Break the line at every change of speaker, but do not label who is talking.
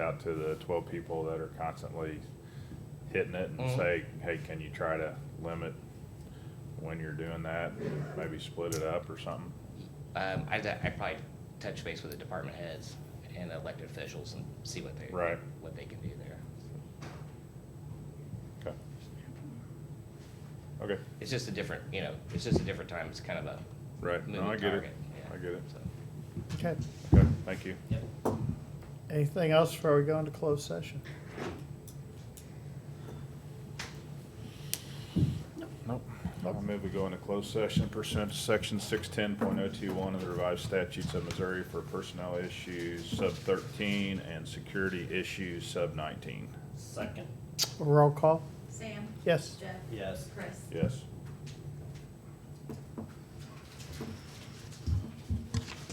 out to the twelve people that are constantly hitting it and
Mhm.
say, hey, can you try to limit when you're doing that? Maybe split it up or something?
Um, I, I probably touch base with the department heads and elected officials and see what they.
Right.
What they can do there.
Okay. Okay,
It's just a different, you know, it's just a different time, it's kind of a.
right, no, I
moving
get it,
target, yeah.
I get it.
So,
Okay.
Okay, thank you.
yep.
Anything else before we go into closed session?
Nope.
Nope.
I move we go into closed session pursuant to section six ten point oh two one of the revised statutes of Missouri for personnel issues sub thirteen and security issues sub nineteen.
Second.
Roll call?
Sam?
Yes.
Jeff?
Yes.
Chris?
Yes.